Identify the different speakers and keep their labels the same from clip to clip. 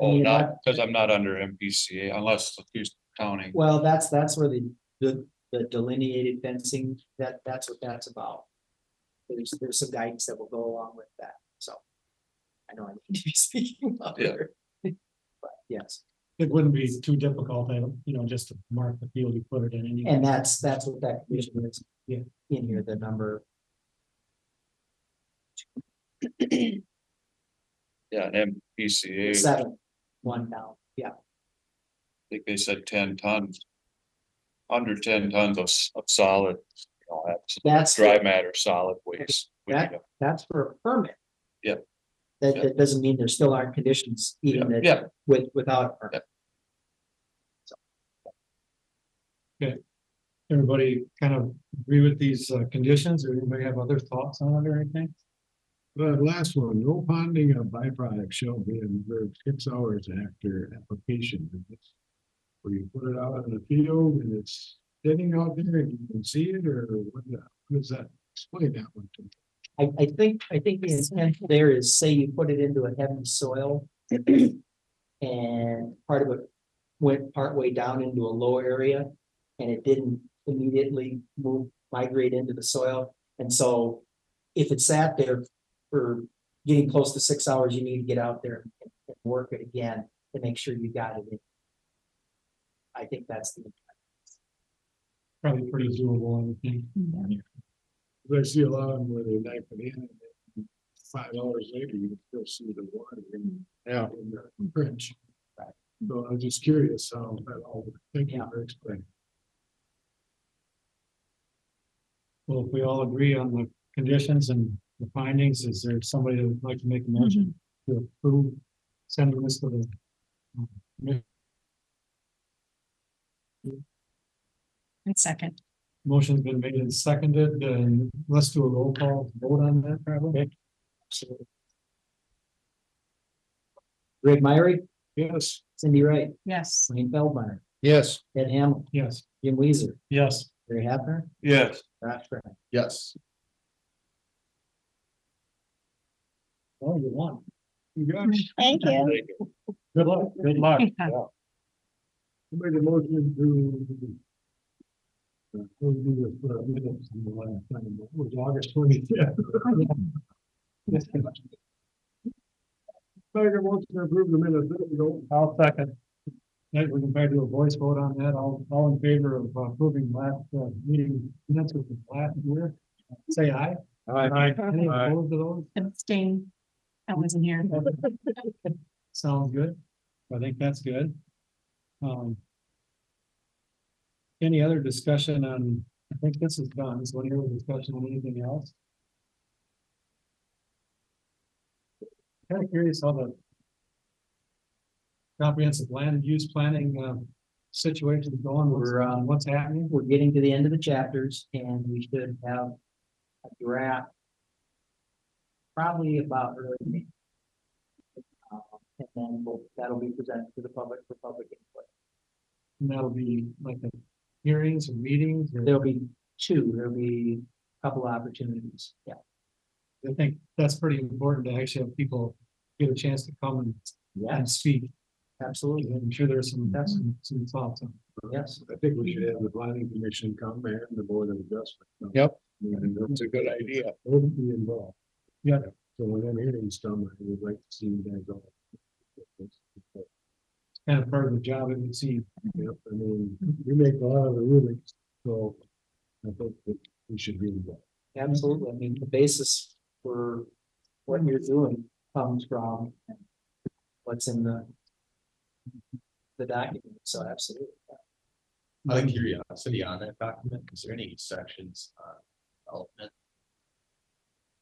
Speaker 1: Oh,
Speaker 2: mean,
Speaker 1: not, because I'm not under MPCA unless the county.
Speaker 2: Well, that's, that's where the, the, the delineated fencing, that, that's what that's about. There's, there's some guidance that will go along with that, so. I know I need to be speaking up
Speaker 1: Yeah.
Speaker 2: here. But yes,
Speaker 3: It wouldn't be too difficult, I don't, you know, just to mark the field you put it in. anyway.
Speaker 2: and that's, that's what that condition is.
Speaker 3: Yeah.
Speaker 2: In here, the number,
Speaker 1: Yeah, and MPCA, I
Speaker 2: seven, one down, yeah,
Speaker 1: think they said ten tons. Under ten tons of, s- of solid, you know, that's
Speaker 2: that's,
Speaker 1: dry matter, solid waste. We need
Speaker 2: That- that's for a permit.
Speaker 1: Yeah.
Speaker 2: That,
Speaker 1: Yeah.
Speaker 2: that doesn't mean there still aren't conditions even
Speaker 1: a-
Speaker 2: that
Speaker 1: Yeah,
Speaker 2: with, without a permit.
Speaker 3: Everybody kind of agree with these uh, conditions, or anybody have other thoughts on it or anything?
Speaker 4: The last one, no ponding of byproduct shall be observed six hours after application. And that's Where you put it out in the field and it's sitting out there and you can see it or what, the- what does that, explain that one to me.
Speaker 2: I, I think, I think the intent there is, say you put it into a heavy soil. And part of it went partway down into a low area. And it didn't immediately move, migrate into the soil, and so. If it sat there for getting close to six hours, you need to get out there and and work it again to make sure you got it in. I think that's the,
Speaker 3: Probably pretty doable, I think.
Speaker 4: But I see a lot of them where they knife it in. and then Five hours later, you can still see the water in. Yeah. In the bridge. So I'm just curious how that all, thank you for explaining.
Speaker 3: Well, if we all agree on the conditions and the findings, is there somebody that would like to make a motion to approve? Send this to the. um, mi-
Speaker 5: And second,
Speaker 3: Motion's been made and seconded, and let's do a roll call vote on that, probably.
Speaker 2: Greg Myrie,
Speaker 3: Yes.
Speaker 2: Cindy Wright,
Speaker 5: yes.
Speaker 2: Wayne Feldmeyer,
Speaker 4: Yes.
Speaker 2: Ed Hamel,
Speaker 3: Yes.
Speaker 2: Jim Weezer,
Speaker 3: Yes.
Speaker 2: Barry Hapner,
Speaker 1: yes,
Speaker 2: Josh Brown.
Speaker 4: Yes.
Speaker 3: Oh, you won.
Speaker 4: You got it.
Speaker 5: Thank
Speaker 1: Thank you.
Speaker 3: Good luck. Good luck.
Speaker 4: Make a motion to. uh, we'll do this for a minute from the last time, but It was August twenty-fifth. Make a motion to approve the minutes, there we go.
Speaker 3: I'll second. That we can try to do a voice vote on that. All, all in favor of approving last uh, meeting minutes with the last year, say aye. Aye. Any
Speaker 4: Aye.
Speaker 3: opposed to those?
Speaker 5: Abstain. I wasn't here.
Speaker 3: Sounds good. I think that's good. Um. Any other discussion on, I think this is done. Is one other discussion on anything else? Kind of curious how the. Comprehensive land use planning, uh, situation is going,
Speaker 2: We're,
Speaker 3: or, uh,
Speaker 2: um,
Speaker 3: what's happening?
Speaker 2: we're getting to the end of the chapters and we should have a draft. Probably about early May. Uh, And then we'll, that'll be presented to the public for public input.
Speaker 3: And that'll be like the hearings and meetings, or
Speaker 2: There'll be two, there'll be a couple opportunities, yeah.
Speaker 3: I think that's pretty important to actually have people get a chance to come and, and speak.
Speaker 2: Absolutely,
Speaker 3: I'm sure there's some, that's some- some thoughts on.
Speaker 2: yes.
Speaker 4: I think we should have the planning commission come and the board of adjustment.
Speaker 3: Yep.
Speaker 4: And that's a good idea. Wouldn't be involved.
Speaker 3: Yeah.
Speaker 4: So when I'm hearing some, I would like to see you guys all.
Speaker 3: kind of part of the job, it would seem.
Speaker 4: Yep, I mean, you make a lot of the rulings, so I think that we should be involved.
Speaker 2: Absolutely, I mean, the basis for what you're doing comes from what's in the the document, so absolutely.
Speaker 6: Out of curiosity on that document, is there any sections on development?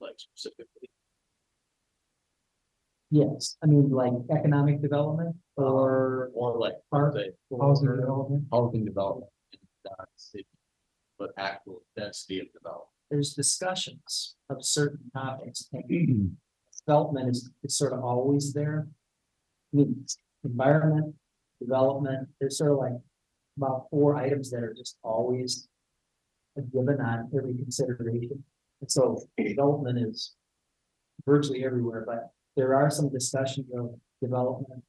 Speaker 6: Like specifically,
Speaker 2: Yes, I mean, like economic development or
Speaker 6: or like
Speaker 2: park.
Speaker 6: the
Speaker 3: Housing
Speaker 2: or-
Speaker 3: development,
Speaker 6: housing development in the city, but actual density of development?
Speaker 2: There's discussions of certain topics. and Development is, is sort of always there. I mean, environment, development, there's sort of like about four items that are just always a given on every consideration. And so development is virtually everywhere, but there are some discussions of development